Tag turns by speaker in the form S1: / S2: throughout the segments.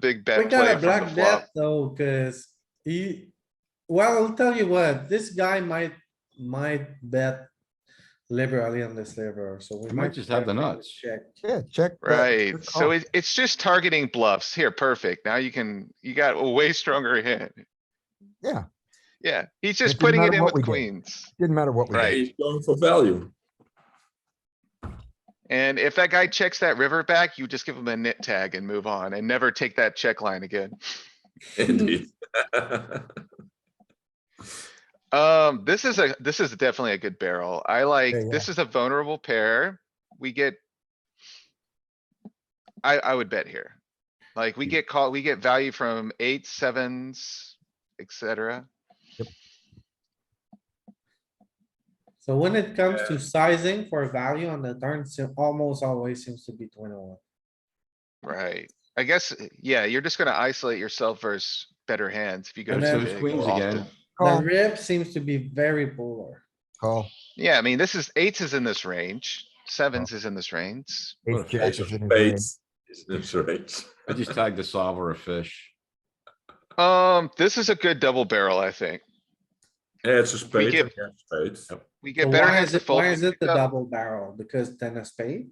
S1: big
S2: We
S1: bet play
S2: gotta
S1: from the
S2: block
S1: flop.
S2: that though, cuz he, well, I'll tell you what, this guy might, might bet liberally on this river, so we
S3: He
S2: might.
S3: might just have the
S2: check,
S3: nuts.
S2: Check.
S4: Yeah, check. back,
S1: Right,
S4: check
S1: so
S4: off.
S1: it, it's just targeting bluffs. Here, perfect. Now you can, you got a way stronger hand.
S4: Yeah,
S1: Yeah, he's
S4: It
S1: just
S4: didn't
S1: putting it
S4: matter
S1: in
S4: what we
S1: with
S4: did.
S1: queens.
S4: didn't matter what we did.
S1: Right.
S5: He's going for value.
S1: And if that guy checks that river back, you just give him a nit tag and move on and never take that check line again.
S5: Indeed.
S1: Um, this is a, this is definitely a good barrel. I like,
S4: yeah.
S1: this is a vulnerable pair. We get. I, I would bet here. Like,
S2: Hmm.
S1: we get called, we get value from eight, sevens, et cetera.
S2: So when it comes to sizing for value on the turn, it almost always seems to be twenty-one.
S1: Right, I guess, yeah, you're just gonna isolate yourself versus better hands if you go.
S2: And
S3: It's
S2: then-
S1: too
S3: those
S1: big
S3: queens
S1: often.
S3: again.
S2: The
S4: Call,
S2: rib seems to be very polar.
S4: call.
S1: Yeah, I mean, this is, eights is in this range, sevens is in this range.
S4: Ace jack is in his range.
S5: Spades. is in his range.
S3: I just tagged the solver a fish.
S1: Um, this is a good double barrel, I think.
S5: Yeah, it's a spade.
S1: give-
S5: yeah, spades.
S1: We
S2: So
S1: get better
S2: why
S1: hands
S2: is
S1: to
S2: it- Why
S1: fold.
S2: is it the
S1: Yeah.
S2: double barrel? Because ten of spade?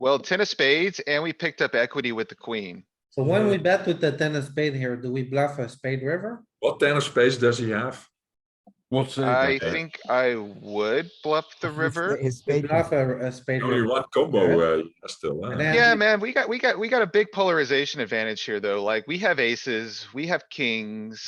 S1: Well, ten of spades and we picked up equity with the queen.
S2: So when we bet with the ten of spade here, do we bluff a spade river?
S5: What ten of spades does he have?
S3: What's it?
S1: I think I would bluff the
S4: His-
S1: river.
S4: His
S2: We
S4: spade.
S2: bluff a, a spade
S5: Only
S2: river.
S5: one combo uh, still.
S2: And
S5: huh?
S2: then-
S1: Yeah, man, we got, we got, we got a big polarization advantage here, though. Like, we have aces, we have kings,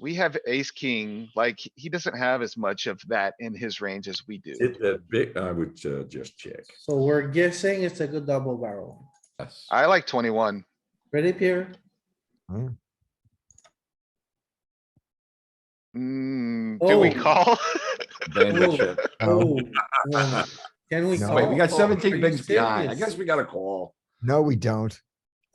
S1: we have ace, king. Like, he doesn't have as much of that in his range as we do.
S5: Is it that big? I would uh, just check.
S2: So we're guessing it's a good double barrel.
S3: Yes.
S1: I like twenty-one.
S2: Ready, Pierre?
S1: Mm, do we
S2: Oh.
S1: call?
S3: Bandit
S2: Ooh.
S3: chip.
S2: Oh,
S4: No,
S2: no. Can we?
S4: No.
S2: call?
S3: Wait, we got
S2: Oh, are
S3: seventeen
S2: you
S3: bigs behind. I
S2: serious?
S3: guess we gotta call.
S4: no, we don't.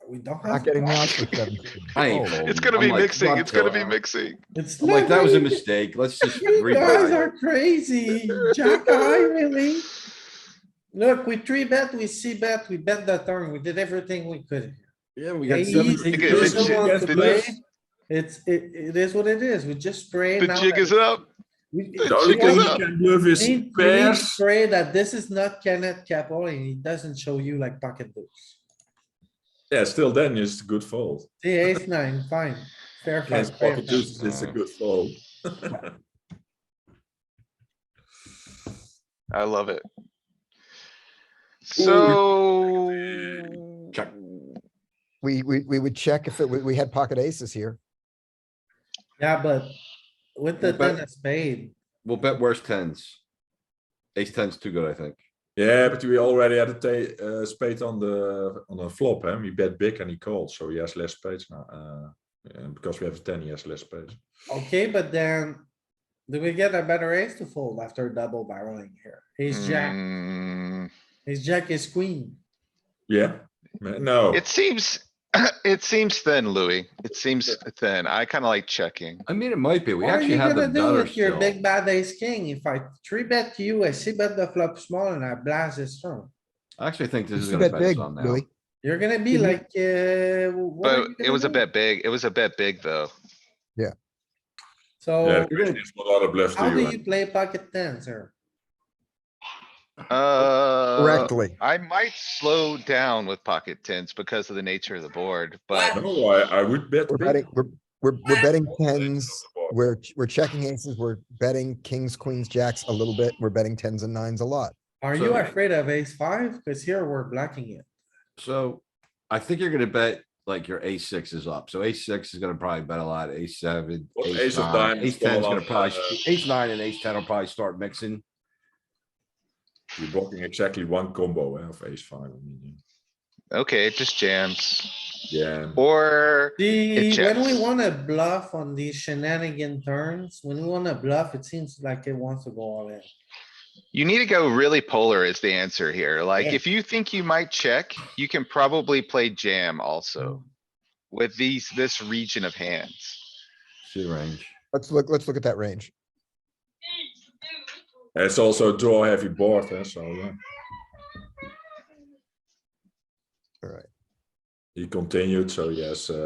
S2: We don't
S4: Not
S2: have.
S4: getting out with seven.
S3: I ain't folding.
S1: It's gonna
S3: I'm
S1: be
S3: like,
S1: mixing,
S3: fuck
S1: it's gonna
S3: that.
S1: be mixing.
S2: It's
S3: I'm like, that was a
S2: literally-
S3: mistake. Let's just
S2: You guys
S3: rebuy.
S2: are crazy. Jack eye, really? Look, we three bet, we see bet, we bet the turn. We did everything we could.
S3: Yeah, we got
S2: Ace,
S3: seventeen.
S1: Because
S2: doesn't
S1: it's-
S3: bigs.
S2: want to
S1: it's-
S2: play. It's, it, it is what it is. We just spray.
S1: The
S2: now
S1: jig
S2: that
S1: is up.
S2: we-
S5: The only
S1: check
S5: thing
S1: it
S5: you
S1: out.
S5: can move
S2: We
S5: is
S2: need- we need to
S5: pairs.
S2: Pray that this is not Kenneth Capel and he doesn't show you like pocket deuce.
S5: Yeah, still then it's a good fold.
S2: See ace nine, fine. Fair
S5: Against
S2: fight, fair
S5: pocket
S2: fight.
S5: deuces, it's a good fold.
S1: I love it. So.
S3: Check.
S4: We, we, we would check if it, we, we had pocket aces here.
S2: Yeah, but with the
S3: But-
S2: ten of spade,
S3: We'll bet worse tens. Ace ten's too good, I think.
S5: Yeah, but we already had a ta- uh, spade on the on a flop, and we bet big and he called, so he has less spades now. Uh, and because we have a ten, he has less spades.
S2: okay, but then do we get a better ace to fold after double barreling here?
S3: Hmm.
S2: Ace jack,
S1: Mm,
S2: ace jack is queen.
S5: Yeah, Ma- no.
S1: It seems, it seems thin, Louis. It seems thin. I kinda like checking.
S3: I mean, it might be. We
S2: What are
S3: actually
S2: you
S3: have the
S2: gonna do
S3: nutter
S2: with your
S3: still.
S2: big bad ace king? If I three bet you, I see bet the flop small and I blast this turn.
S3: I actually think this is
S4: You
S3: gonna
S4: bet
S3: bet
S4: big,
S3: some now.
S4: Louis.
S2: You're gonna be
S3: Mm-hmm.
S4: Mhm.
S2: like, uh. what
S1: But
S2: are you
S1: it
S2: gonna
S1: was a
S2: do?
S1: bet big. It was a bet big, though.
S5: yeah,
S2: So
S5: the question is what other bluffs
S2: how
S5: do you
S2: do
S5: have?
S2: you play pocket tens here?
S1: Uh,
S4: Correctly.
S1: I might slow down with pocket tens because of the nature of the board, but
S5: No, I, I would bet
S4: We're
S5: big.
S4: betting, we're, we're, we're betting tens.
S5: board.
S4: We're, we're checking aces. We're betting kings, queens, jacks a little bit. We're betting tens and nines a lot.
S2: Are you
S3: So-
S2: afraid of ace five? Cause here we're blocking it.
S3: So I think you're gonna bet like your ace six is up. So ace six is gonna probably bet a lot. Ace seven,
S5: Well,
S3: ace
S5: ace of
S3: nine,
S5: diamonds
S3: ace
S5: fall
S3: ten's gonna
S5: off,
S3: probably,
S5: uh,
S3: ace nine and ace ten will probably start mixing.
S5: You're blocking exactly one combo eh, of ace five. I mean,
S1: okay, it just jams.
S5: yeah.
S1: Or,
S2: The, when we
S1: checks.
S2: wanna bluff on these shenanigan turns, when we wanna bluff, it seems like it wants to go all in.
S1: you need to go really polar is the answer here. Like,
S2: Yeah.
S1: if you think you might check, you can probably play jam also. With these, this region of hands.
S3: See range.
S4: Let's look, let's look at that range.
S5: It's also a draw heavy board, eh, so yeah.
S4: All right.
S5: He continued, so yes. Uh,